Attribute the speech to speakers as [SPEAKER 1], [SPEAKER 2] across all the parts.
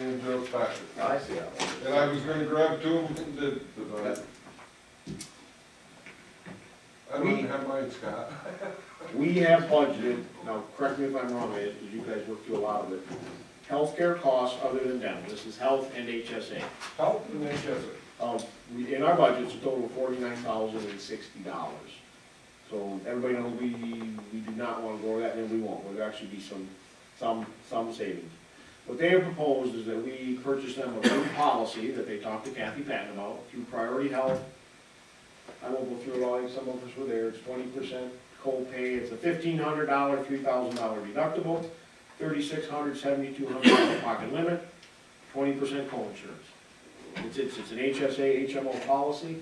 [SPEAKER 1] in their packet.
[SPEAKER 2] Oh, I see that one.
[SPEAKER 1] And I was gonna grab two of them, did, but I, I wouldn't have mine, Scott.
[SPEAKER 2] We have budgeted, now, correct me if I'm wrong, Ed, because you guys worked through a lot of it, healthcare costs other than dental, this is health and HSA.
[SPEAKER 1] Help and then Chester.
[SPEAKER 2] Um, we, in our budget, it's a total of forty-nine thousand and sixty dollars. So everybody knows we, we do not wanna go over that, and we won't, there'll actually be some, some, some savings. What they have proposed is that we purchase them a new policy that they talked to Kathy Patton about, through Priority Health. I won't go through it all, some of us were there, it's twenty percent co-pay, it's a fifteen hundred dollar, three thousand dollar deductible, thirty-six hundred, seventy-two hundred dollar pocket limit, twenty percent co-insurance. It's, it's, it's an HSA, HMO policy.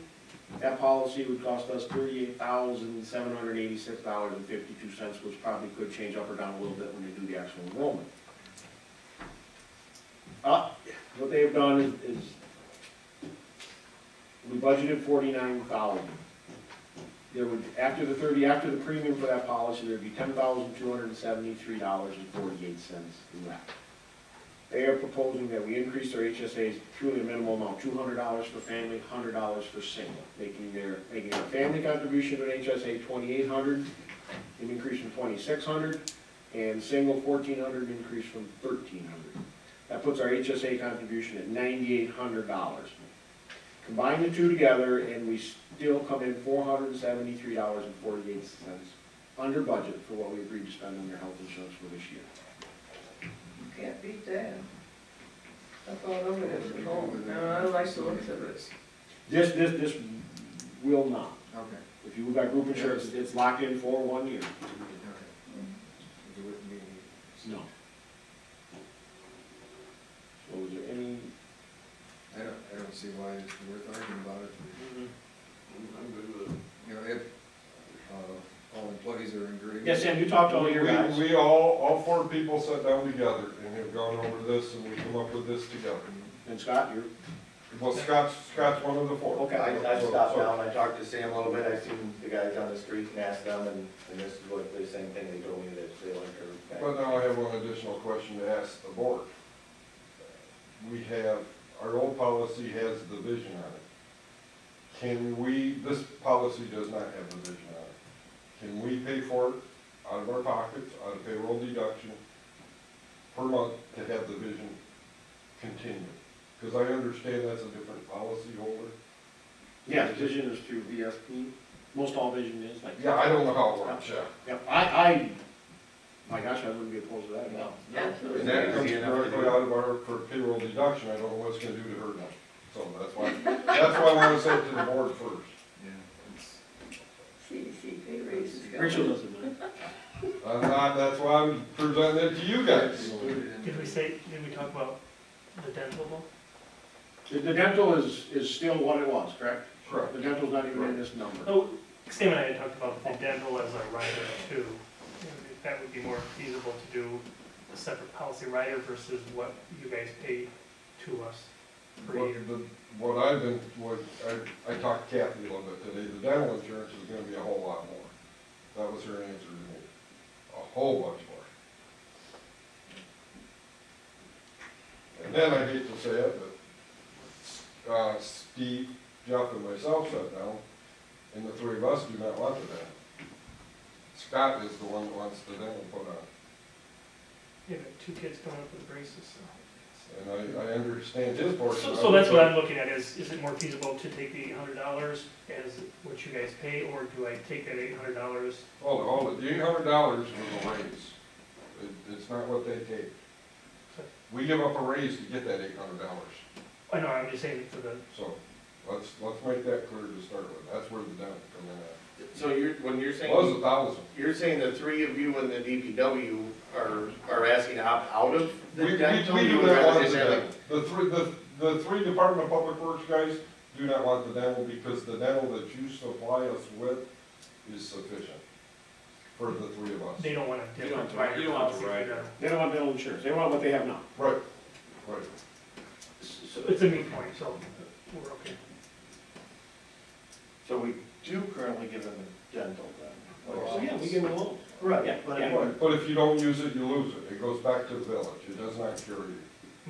[SPEAKER 2] That policy would cost us thirty-eight thousand, seven hundred eighty-six dollars and fifty-two cents, which probably could change up or down a little bit when they do the actual enrollment. Uh, what they've done is, is we budgeted forty-nine thousand. There would, after the thirty, after the premium for that policy, there'd be ten thousand, two hundred and seventy-three dollars and forty-eight cents left. They are proposing that we increase their HSAs to the minimum amount, two hundred dollars for family, hundred dollars for single, making their, making their family contribution to an HSA twenty-eight hundred, an increase from twenty-six hundred, and single fourteen hundred, an increase from thirteen hundred. That puts our HSA contribution at ninety-eight hundred dollars. Combine the two together, and we still come in four hundred and seventy-three dollars and forty-eight cents under budget for what we agreed to spend on their health insurance for this year.
[SPEAKER 3] Can't beat that. That's all over this at home. No, I don't like the looks of it.
[SPEAKER 2] This, this, this will not.
[SPEAKER 4] Okay,
[SPEAKER 2] If you look at group insurance, it's locked in for one year.
[SPEAKER 4] okay. It wouldn't be,
[SPEAKER 2] No. So is there any?
[SPEAKER 4] I don't, I don't see why it's worth arguing about it.
[SPEAKER 1] Mm-hmm. I'm good with it.
[SPEAKER 4] You know, if, uh, all employees are in agreement.
[SPEAKER 2] Yes, Sam, you talked to all your guys.
[SPEAKER 1] We, we all, all four people sat down together and have gone over this and we come up with this together.
[SPEAKER 2] And Scott, you're,
[SPEAKER 1] Well, Scott's, Scott's one of the four.
[SPEAKER 2] okay.
[SPEAKER 5] I, I
[SPEAKER 1] So-
[SPEAKER 5] stopped
[SPEAKER 1] so-
[SPEAKER 5] down, I talked to Sam a little bit, I seen the guys on the street and asked them, and, and this is what the same thing they told me that they wanted to.
[SPEAKER 1] But now I have one additional question to ask the board. We have, our old policy has the vision on it. Can we, this policy does not have the vision on it. Can we pay for it out of our pockets, out of payroll deduction per month to have the vision continue? Because I understand that's a different policy holder.
[SPEAKER 2] Yeah, vision is through VSP. Most all vision is like.
[SPEAKER 1] Yeah, I don't know how it works, yeah.
[SPEAKER 2] Yep, I, I, my gosh, I wouldn't be opposed to that at all.
[SPEAKER 3] Absolutely.
[SPEAKER 1] And that comes directly out of our per- payroll deduction, I don't know what's gonna do to her now. So that's why, that's why I wanna say it to the board first.
[SPEAKER 4] Yeah, it's-
[SPEAKER 3] See, see, pay raises. go.
[SPEAKER 2] Rachel doesn't mind.
[SPEAKER 1] Uh, uh, that's why I'm presenting it to you
[SPEAKER 4] it's
[SPEAKER 1] guys.
[SPEAKER 4] included in
[SPEAKER 6] Did we
[SPEAKER 4] the-
[SPEAKER 6] say, did we talk about the dental one?
[SPEAKER 2] The the dental is, is still what it was, correct?
[SPEAKER 1] Correct.
[SPEAKER 2] The dental's not even in this number.
[SPEAKER 6] Oh, Sam and I had talked about the dental as a rider too. If That would be more feasible to do a separate policy rider versus what you guys pay to us per
[SPEAKER 1] What,
[SPEAKER 6] year.
[SPEAKER 1] the- what I've been, what, I, I talked to Kathy a little bit today, the dental insurance is gonna be a whole lot more. That was her answer to me, a whole bunch more. And then I hate to say it, but, uh, Steve, Jeff and myself shut down, and the three of us do not want the dental. Scott is the one that wants the dental put on.
[SPEAKER 6] You know, two kids coming up with braces, so.
[SPEAKER 1] And I, I understand his portion.
[SPEAKER 6] So,
[SPEAKER 1] of
[SPEAKER 6] so
[SPEAKER 1] it,
[SPEAKER 6] that's what
[SPEAKER 1] but-
[SPEAKER 6] I'm looking at, is, is it more feasible to take the eight hundred dollars as what you guys pay, or do I take that eight hundred dollars?
[SPEAKER 1] Hold it, hold it, the eight hundred dollars was a raise. It, it's not what they take. We give up a raise to get that eight hundred dollars,
[SPEAKER 6] I know, I'm just saying for the,
[SPEAKER 1] so let's, let's make that clear to start with, that's where the down come in
[SPEAKER 5] So you're, when you're
[SPEAKER 1] at. Was a thousand.
[SPEAKER 5] you're saying the three of you and the DPW are, are asking to opt out of
[SPEAKER 1] We, we, we do not want the dental. The three, the, the three Department of Public Works guys do not want the dental because the dental that you supply us with is sufficient for the three of us.
[SPEAKER 6] they don't want a
[SPEAKER 2] You don't
[SPEAKER 6] different
[SPEAKER 2] want-
[SPEAKER 6] rider
[SPEAKER 2] you don't want
[SPEAKER 6] policy
[SPEAKER 2] the
[SPEAKER 6] for
[SPEAKER 2] rider.
[SPEAKER 6] dental.
[SPEAKER 2] They don't want dental insurance. They want what they have now.
[SPEAKER 1] Right, right.
[SPEAKER 6] So it's a moot point, so we're okay.
[SPEAKER 5] So we do currently give them a dental then.
[SPEAKER 2] So, Oh, yeah, we give them a loan.
[SPEAKER 5] Right,
[SPEAKER 2] Yeah,
[SPEAKER 5] but
[SPEAKER 2] yeah.
[SPEAKER 5] anyway,
[SPEAKER 1] But if you don't use it, you lose it, it goes back to the village, it does not cure you.